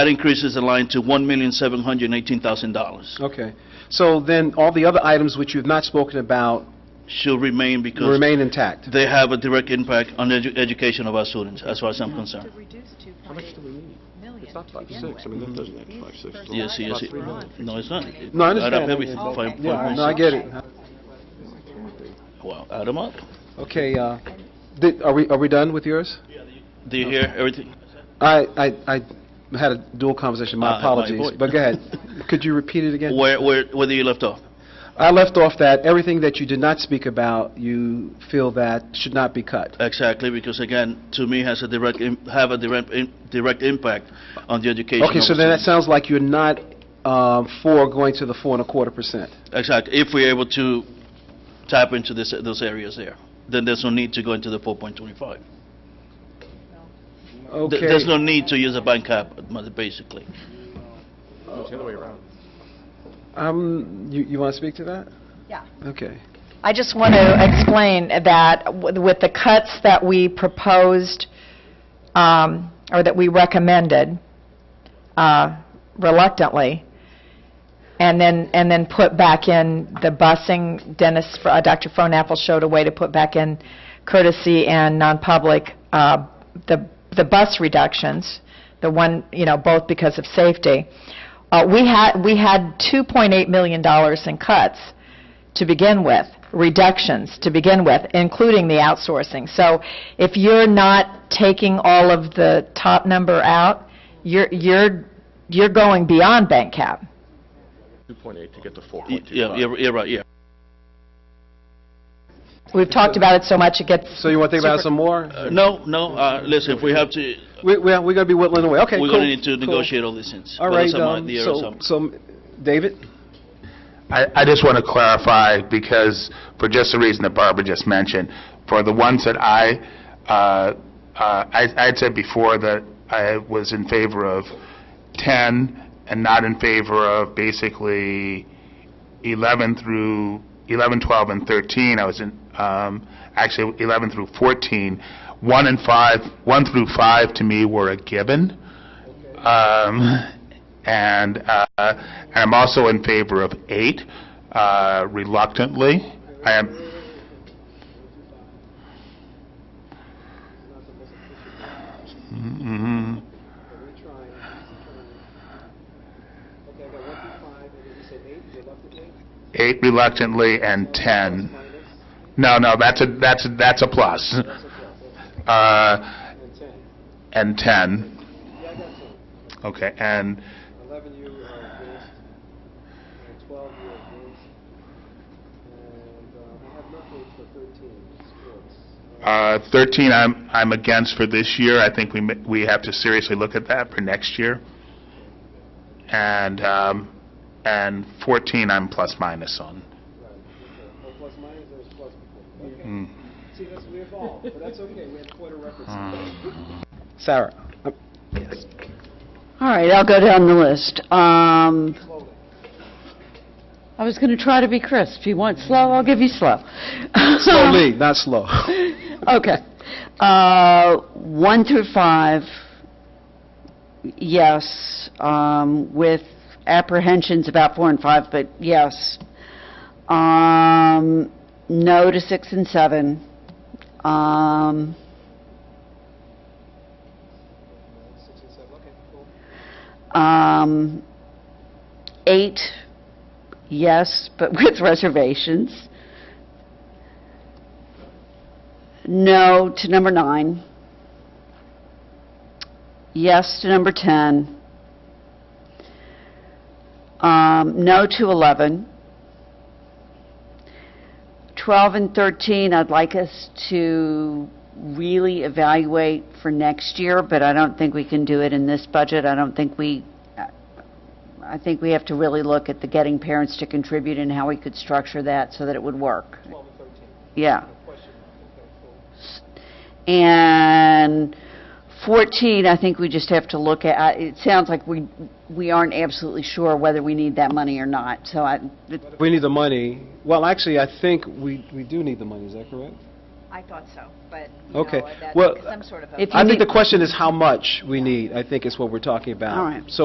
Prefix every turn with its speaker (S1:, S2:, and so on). S1: That increases the line to $1,718,000.
S2: Okay. So then, all the other items which you've not spoken about
S1: Should remain because
S2: remain intact?
S1: they have a direct impact on the edu- education of our students, as far as I'm concerned.
S3: To reduce to
S4: How much do we need? It's not five, six, I mean,
S3: million.
S4: that doesn't add five, six. does it?
S1: Yes, yes,
S4: About
S1: it-
S4: three million.
S1: no, it's not.
S2: No, I understand.
S1: Add up everything,
S2: Yeah,
S1: five-
S3: Okay.
S2: Yeah,
S1: five
S2: no, I
S1: points.
S2: get it.
S1: Wow, add them up.
S2: Okay, uh, did- are we, are we done with yours?
S1: Do you hear everything?
S2: I, I, I had a dual conversation,
S1: Ah,
S2: my
S1: my
S2: apologies,
S1: voice.
S2: but go ahead. Could you repeat it again?
S1: Where, where, where do you left off?
S2: I left off that everything that you did not speak about, you feel that should not be cut.
S1: Exactly, because again, to me, has a direct, im- have a direct, im- direct impact on the education.
S2: Okay,
S1: of
S2: so
S1: the
S2: then that
S1: students.
S2: sounds like you're not um, for going to the four and a quarter percent.
S1: Exactly, if we're able to tap into this, those areas there, then there's no need to go into the 4.25. Th-
S2: Okay.
S1: There's no need to use a bank cap, basically.
S4: It's the other way around.
S2: Um, you, you want to speak to that?
S5: Yeah.
S2: Okay.
S5: I just want to explain that w- with the cuts that we proposed, um, or that we recommended uh, reluctantly, and then, and then put back in the busing, Dennis, uh, Dr. Phonapple showed a way to put back in courtesy and non-public, uh, the, the bus reductions, the one, you know, both because of safety. Uh, We had, we had $2.8 million in cuts to begin with, reductions to begin with, including the outsourcing. So if you're not taking all of the top number out, you're, you're, you're going beyond bank cap.
S4: 2.8 to get to
S1: Y-
S4: 4.25.
S1: Yeah, you're you're right, yeah.
S5: We've talked about it so much, it gets...
S2: So you want to think about it some more?
S1: Uh, No, no, uh, listen, if we have to,
S2: We, we- we're going to be whittling away. Okay,
S1: we're
S2: cool.
S1: going to need to
S2: cool.
S1: negotiate all these things.
S2: All
S1: But
S2: right,
S1: that's my
S2: um,
S1: idea or
S2: so,
S1: something.
S2: so, David?
S6: I, I just want to clarify, because for just the reason that Barbara just mentioned, for the ones that I, uh, uh, I I had said before that I was in favor of 10 and not in favor of basically 11 through, 11, 12, and 13, I was in, um, actually 11 through 14. 1 and 5, 1 through 5 to me were a given. Um, and, uh, and I'm also in favor of eight, uh, reluctantly. I am, mhm. eight reluctantly and 10. No, no, that's a, that's, a- that's a plus. Uh, and 10. Okay, and,
S2: 11 you are against, and 12 you are against, and uh, I have nothing for 13, sports.
S6: Uh, 13, I'm, I'm against for this year. I think we, ma- we have to seriously look at that for next year. And, um, and 14, I'm plus minus on.
S2: Right, okay. Well, plus minus, there was plus before. Okay.
S6: Mm.
S2: See, that's, we have all, but that's okay, we have quarter references. Sarah?
S7: All right, I'll go down the list. Um, I was going to try to be crisp. If you want slow, I'll give you slow.
S2: Slowly, not slow.
S7: Okay. Uh, One through five, yes, um, with apprehensions about four and five, but yes. Um, No to six and seven. Um,
S2: Six and seven, okay, cool.
S7: Um, Eight, yes, but with reservations. No to number nine. Yes to number 10. Um, No to 11. 12 and 13, I'd like us to really evaluate for next year, but I don't think we can do it in this budget. I don't think we, I think we have to really look at the getting parents to contribute and how we could structure that so that it would work.
S2: 12 and 13,
S7: Yeah.
S2: question mark, okay, cool.
S7: And 14, I think we just have to look at, I- it sounds like we, we aren't absolutely sure whether we need that money or not, so I,
S2: We need the money. Well, actually, I think we, we do need the money, is that correct?
S3: I thought so, but, you know,
S2: Okay.
S3: that-
S2: Well,
S3: some sort of a...
S7: If you
S2: I
S7: need-
S2: think the question is how much we need, I think is what we're talking about.
S7: All right.
S2: So